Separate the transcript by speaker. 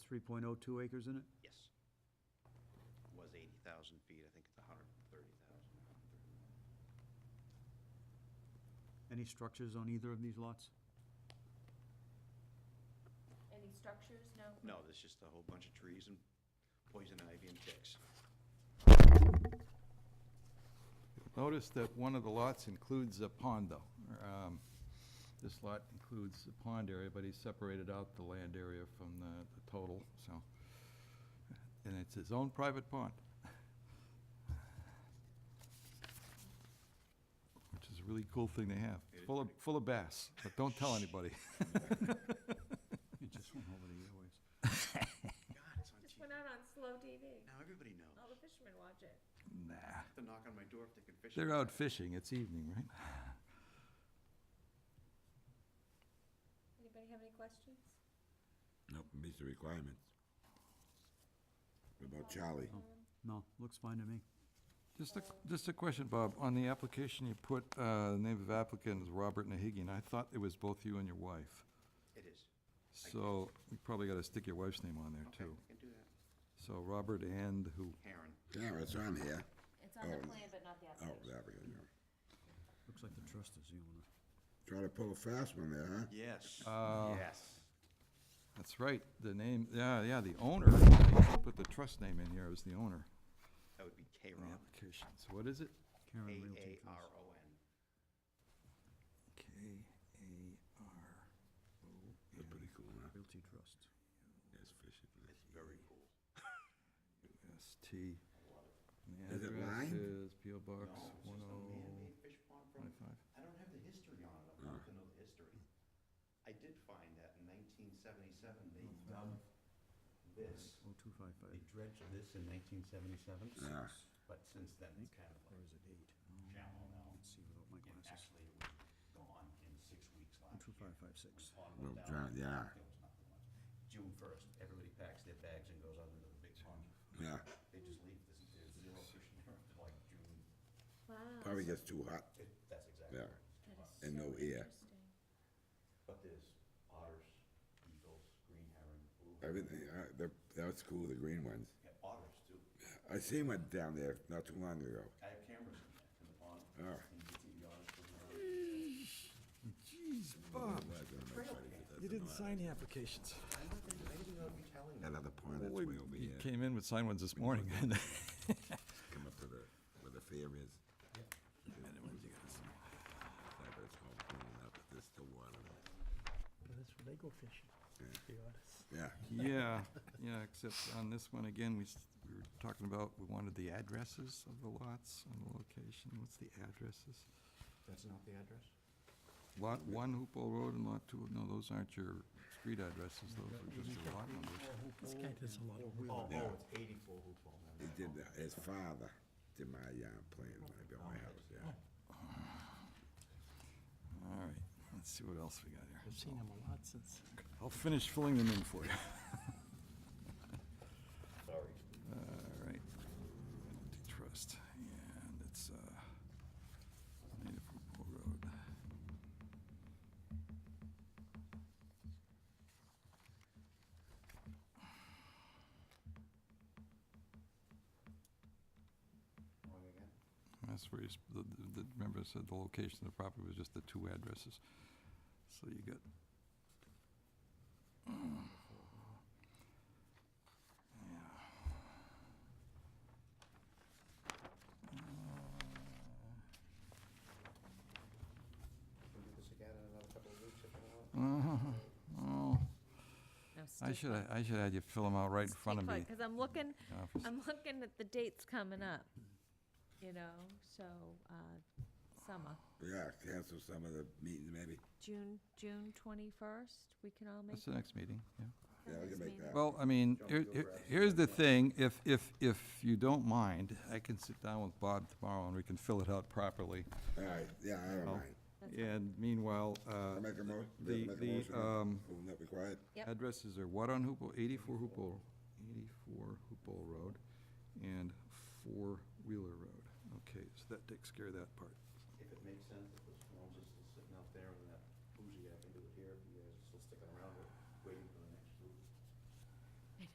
Speaker 1: 3.02 acres in it?
Speaker 2: Yes. Was 80,000 feet, I think it's 130,000.
Speaker 1: Any structures on either of these lots?
Speaker 3: Any structures, no?
Speaker 2: No, there's just a whole bunch of trees and poison ivy and ticks.
Speaker 4: Notice that one of the lots includes a pond, though. Um, This lot includes the pond area, but he separated out the land area from the the total, so. And it's his own private pond. Which is a really cool thing they have. It's Full of, full of bass, but don't tell anybody.
Speaker 1: It just went over the airwaves.
Speaker 2: God, it's on
Speaker 3: Just
Speaker 2: TV.
Speaker 3: went out on slow TV.
Speaker 2: Now everybody knows.
Speaker 3: All the fishermen watch it.
Speaker 4: Nah.
Speaker 2: Have to knock on my door if they can fish.
Speaker 4: They're out fishing. It's evening, right?
Speaker 3: Anybody have any questions?
Speaker 5: Nope, meets the requirements. What about Charlie?
Speaker 1: No, looks fine to me.
Speaker 4: Just a, just a question, Bob. On the application, you put, uh, the name of applicant is Robert Nahigian. I thought it was both you and your wife.
Speaker 2: It is.
Speaker 4: So we probably gotta stick your wife's name on there
Speaker 2: Okay,
Speaker 4: too.
Speaker 2: I can do that.
Speaker 4: So Robert and who?
Speaker 2: Karen.
Speaker 5: Yeah, it's on here.
Speaker 3: It's on the
Speaker 5: Oh.
Speaker 3: plan, but not the
Speaker 5: Oh,
Speaker 3: application.
Speaker 5: there we go.
Speaker 1: Looks like the trust is the owner.
Speaker 5: Try to pull a fast one there, huh?
Speaker 2: Yes.
Speaker 4: Uh,
Speaker 2: Yes.
Speaker 4: That's right, the name, yeah, yeah, the owner. You should Put the trust name in here as the owner
Speaker 2: That would be
Speaker 4: in the
Speaker 2: K-Ron.
Speaker 4: application. So what is it?
Speaker 1: Karen Realty Trust.
Speaker 2: K-A-R-O-N.
Speaker 4: K A R.
Speaker 5: That's pretty cool, huh?
Speaker 1: Realty Trust.
Speaker 5: That's fishing.
Speaker 2: It's very cool.
Speaker 4: S-T. The
Speaker 5: Is it
Speaker 4: address
Speaker 5: lined?
Speaker 4: is P O
Speaker 2: No,
Speaker 4: Box
Speaker 2: it's
Speaker 4: one
Speaker 2: just a
Speaker 4: oh,
Speaker 2: man-made fish pond from,
Speaker 4: twenty-five.
Speaker 2: I don't have the history on it. I'm not gonna know the history. I did find that in 1977,
Speaker 4: Oh,
Speaker 2: they dug this. They
Speaker 1: 0255.
Speaker 2: dredged this in 1977,
Speaker 5: Yeah.
Speaker 2: but since then, it's kind of
Speaker 1: Or
Speaker 2: like
Speaker 1: is it eight?
Speaker 2: shallow now.
Speaker 1: Let's see without my
Speaker 2: And
Speaker 1: glasses.
Speaker 2: actually, it was gone in six weeks last year.
Speaker 1: 25556.
Speaker 2: When the pond
Speaker 5: Well,
Speaker 2: went down,
Speaker 5: drown- yeah.
Speaker 2: there was nothing left. June 1st, everybody packs their bags and goes out into the big pond.
Speaker 5: Yeah,
Speaker 2: They just leave, there's there's zero fish in there until like June.
Speaker 3: Wow,
Speaker 5: probably gets too hot.
Speaker 2: It- That's exactly what
Speaker 5: Yeah.
Speaker 2: it's
Speaker 3: that
Speaker 2: about.
Speaker 3: is so
Speaker 5: And no ear.
Speaker 3: interesting.
Speaker 2: But there's otters, eagles, green herring, blue herring.
Speaker 5: Everything, uh, the- that's cool, the green ones.
Speaker 2: Yeah, otters too.
Speaker 5: I seen one down there not too long ago.
Speaker 2: I have cameras in there, in the pond.
Speaker 5: Oh.
Speaker 2: And you can see the otters. swimming around.
Speaker 4: Jeez, Bob, you didn't sign the applications.
Speaker 2: I'm not gonna do anything without you telling me.
Speaker 5: That other pond Oh, that's way over
Speaker 4: You
Speaker 5: here,
Speaker 4: came in with signed ones this morning.
Speaker 5: come up to the, where the fair is. And then ones you gotta see. Like it's all cleaned up, but there's still water.
Speaker 6: But That's where they go fishing, the artists.
Speaker 5: Yeah,
Speaker 4: Yeah, yeah, except on this one, again, we, s- we were talking about, we wanted the addresses of the lots and the location. What's the addresses?
Speaker 7: That's not the address?
Speaker 4: Lot one Hoopole Road and lot two, no, those aren't your street addresses, those are just your lot numbers.
Speaker 6: This guy does a lot of work.
Speaker 7: Oh,
Speaker 5: Yeah.
Speaker 7: oh, it's eighty-four Hoop Hall.
Speaker 5: he did, that- his father did my yard plan when I built my house,
Speaker 4: Oh.
Speaker 5: yeah.
Speaker 4: All right, let's see what else we got here.
Speaker 6: I've seen him a lot since.
Speaker 4: I'll finish filling them in for you.
Speaker 2: Sorry.
Speaker 4: All right. Trust, and it's, uh, Native Hoopole Road.
Speaker 2: Wrong again?
Speaker 4: That's where you, sp- the, the, the- remember I said the location of the property was just the two addresses. So you got.
Speaker 7: We'll do this again in another couple of weeks if you want.
Speaker 4: Oh, I should, I should have you fill them out right in front of me.
Speaker 3: Because I'm looking,
Speaker 4: Yeah, for s-
Speaker 3: I'm looking at the dates coming up, you know, so, uh, summer,
Speaker 5: Yeah, cancel some of the meetings maybe.
Speaker 3: June, June 21st, we can all make
Speaker 4: That's the next meeting, yeah.
Speaker 5: Yeah, I can make that.
Speaker 4: Well, I mean, here, here- here's the thing, if, if, if you don't mind, I can sit down with Bob tomorrow and we can fill it out properly.
Speaker 5: All right, yeah, I don't mind.
Speaker 4: And meanwhile, uh,
Speaker 5: I make a mo,
Speaker 4: the-
Speaker 5: make a
Speaker 4: the,
Speaker 5: motion.
Speaker 4: um,
Speaker 5: Will that be quiet?
Speaker 3: Yep.
Speaker 4: Addresses are what on Hoopole, eighty-four Hoopole, eighty-four Hoopole Road and Four Wheeler Road. Okay, so that takes care of that part.
Speaker 2: If it makes sense, if the storm's just sitting out there and that